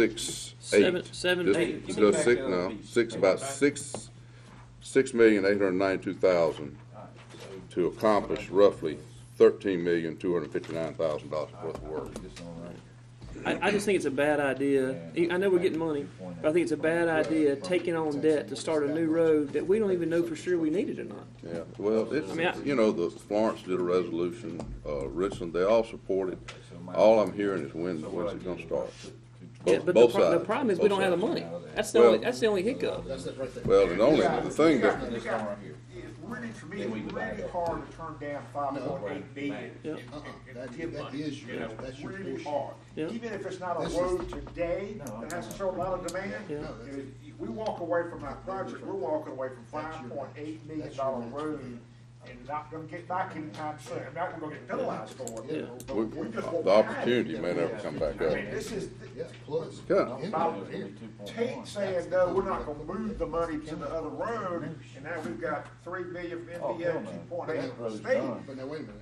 six, Seven- eight. seven, Just- eight. just Back six down, now, please. six, about six, six million, eight hundred and ninety-two thousand to accomplish roughly thirteen million, two hundred and fifty-nine thousand dollars worth of work. I, I just think it's a bad idea. I know we're getting money, but I think it's a bad idea taking on debt to start a new road that we don't even know for sure we need it or not. Yeah, well, I mean, I- it's, you know, the Florence did a resolution, uh, Richland, they all support it. All I'm hearing is when, when's it gonna start? Yeah, Both- but the, both pro- the sides, problem is we both don't have the sides. money. That's the Well- only, that's the only hiccup. Well, and only, the thing that, It's really, to me, it's really hard to turn down five point eight billion. Yep. and- and That- give that money, is you your- know, that's your Really portion. hard. Yep. Even if it's not a This is- road today, that has a certain amount of demand, Yeah. you know, if we walk away from our project, we're walking away from five point eight million that's your dollar next road and not gonna get back anytime soon. I'm not gonna get penalized for Yeah. it. but we- we just won't the have it. opportunity may never come back I up. mean, this is, Yeah, plus. Yeah. Income here. Tate saying, no, we're not gonna move the money to the other road, and now we've got three million from Oh, hell NDA, no. two point eight from the Road's state. done. But now, wait a minute.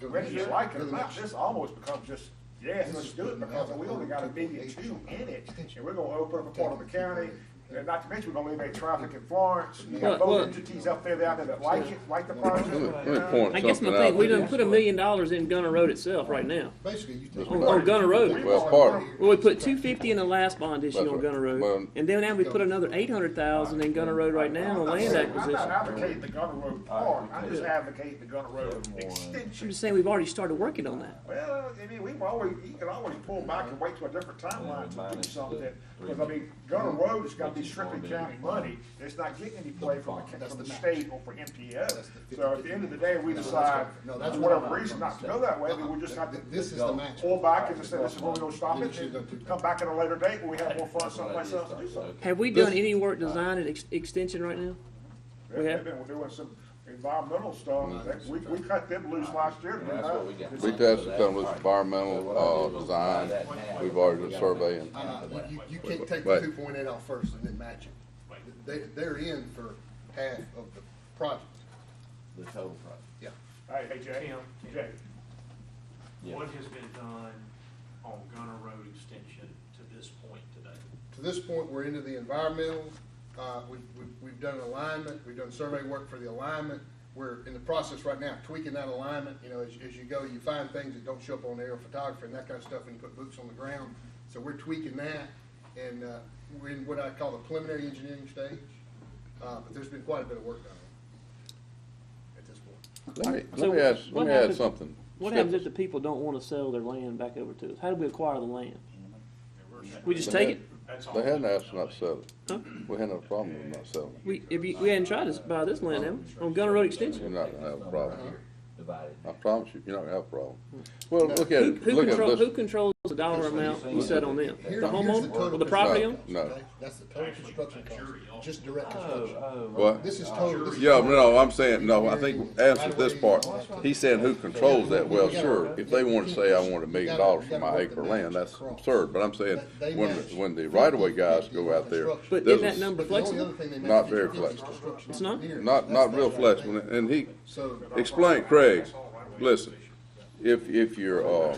Go to Whether the you next- like it go or to the not, next- this almost becomes just, yes, let's do it, because we only got a billion two in it, and we're gonna open up a part of the county, and not to mention, we're gonna eliminate traffic in Florence, you got Well, well- both entities up there out there that like it, like the project. let me, let you me know. point I guess my something out. thing, we to you. done put a million dollars in Gunner Road itself right now, Basically, you take. on, on Gunner Road. Well, part, Well, we put two fifty in the last bond issue That's on right. Gunner Well- Road, and then now we put another eight hundred thousand in Gunner Road right now on land I'm not acquisition. advocating the Gunner Road Park, I'm just advocating the Gunner Road extension. I'm just saying we've already started working on that. Well, I mean, we've always, you can always pull back and wait till a different timeline to do something, because I mean, Gunner Road has gotta be strictly county money, it's not getting any play from the, from the state or from MPO. So at the end of the day, we decide, for whatever reason, not to go that way, then we just have This is to the match. pull back and just say, this is where we're gonna stop it, and come back at a later date when we have more funds someplace else to do something. Have we done any work design and ex- extension right now? They've been doing some environmental stuff, we, we cut them loose last year. didn't That's what we got. We tested some of this environmental, uh, design, we've already done surveying. Uh, you- you, you can't take the Right. two point eight off first and then match it. They, they're in for half of the project, The total price. yeah. Hey, hey, Jay, Jay, What has been done on Gunner Road extension to this point today? To this point, we're into the environmental, uh, we've, we've, we've done alignment, we've done survey work for the alignment. We're in the process right now tweaking that alignment, you know, as, as you go, you find things that don't show up on aerial photography and that kind of stuff, and you put boots on the ground. So we're tweaking that, and, uh, we're in what I call the preliminary engineering stage, uh, but there's been quite a bit of work done at this point. Let me, So let me ask, let what me add happens- something. What happens if the people don't wanna sell their land back over to us? How do we acquire the land? We just take it? That's all. They hadn't asked us not to sell Huh? it. We hadn't had a problem with not selling it. We, if you, we hadn't tried to buy this land, have we? On Gunner Road You're extension? not gonna have a problem. Divided. I promise you, you're not gonna have a problem. Well, look at Uh-huh. Who, it, who look at controls, who this. controls the dollar amount we set on them? The Here- here's homeowner total or the property owner? construction No, cost, okay? That's the total construction cost, just direct Oh. construction. This What? is total. this is Yeah, total. no, I'm saying, no, I think, answer this part. He's saying who controls that? Well, sure, if they wanna say I want a million dollars for my acre of land, that's absurd. But I'm saying, when, the- when the right-of-way guys go out there. But isn't this that is number- But the only other thing they make Not is very direct flexible. construction It's not? engineers. Not, That's- not real that's right. flexible, and he, So, uh, Explain, Craig, listen, if, if you're, uh,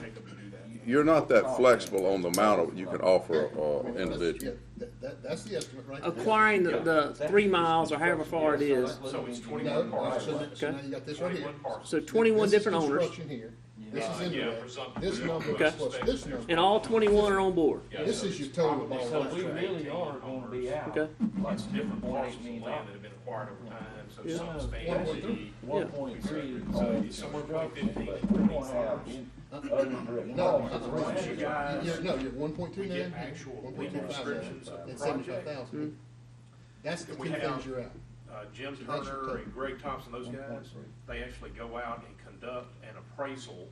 you're not that flexible on the amount of, you can offer a, a yeah, individual. that, that, that's the estimate right there. Acquiring the, the three miles or however far it is, So it's No, twenty-one no, parts. so now- so now you got this right here. Twenty-one parts. so twenty-one This is different owners, Construction here, this is indirect, presumptive. this number Okay. plus this number, and all twenty-one are on board, this is your total of all So that. we really are gonna be out. okay? Lots of different parts of land that have been acquired over time, so some One spans. point three. One point three. So it's somewhere between fifteen and We're twenty gonna have. farms. No, that's No. right. You You're, guys- no, you're one point two nine get here, actual one point two five descriptions of there, the and seventy-five Mm-hmm. thousand. That's the two We have- things you're out. uh, Jim that's your Turner total. and Greg Thompson, those guys, they actually go out and conduct an appraisal,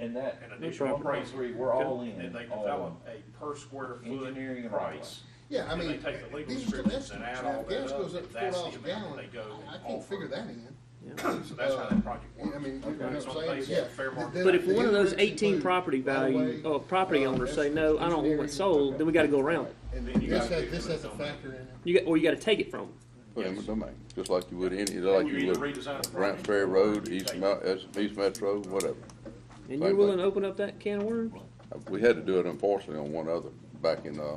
And that, an one additional point appraisal. three, we're all in. And they all develop in. a per square Engineering foot and all that. price. Yeah, I And they mean, take the legal these are still descriptions and add estimates. Now, all if that gas goes up, up to four that's the dollars a amount gallon, they go I- I and can't figure offer. that in. So that's how that project works. I mean, you know Okay, so what I'm saying? based on Yeah. fair market- But if one of those eighteen property value, or property owners say, no, I don't want it sold, then we gotta go around it. And Then you this gotta has, do this it has a somewhere. factor in it. You got, or you gotta take it from them. Put in the domain, just like you would any, like You you either would redesign the Grant project Ferry or Road, you East take Mount, East Metro, whatever. And you're willing to open up that can of worms? We had to do it unfortunately on one other back in, uh,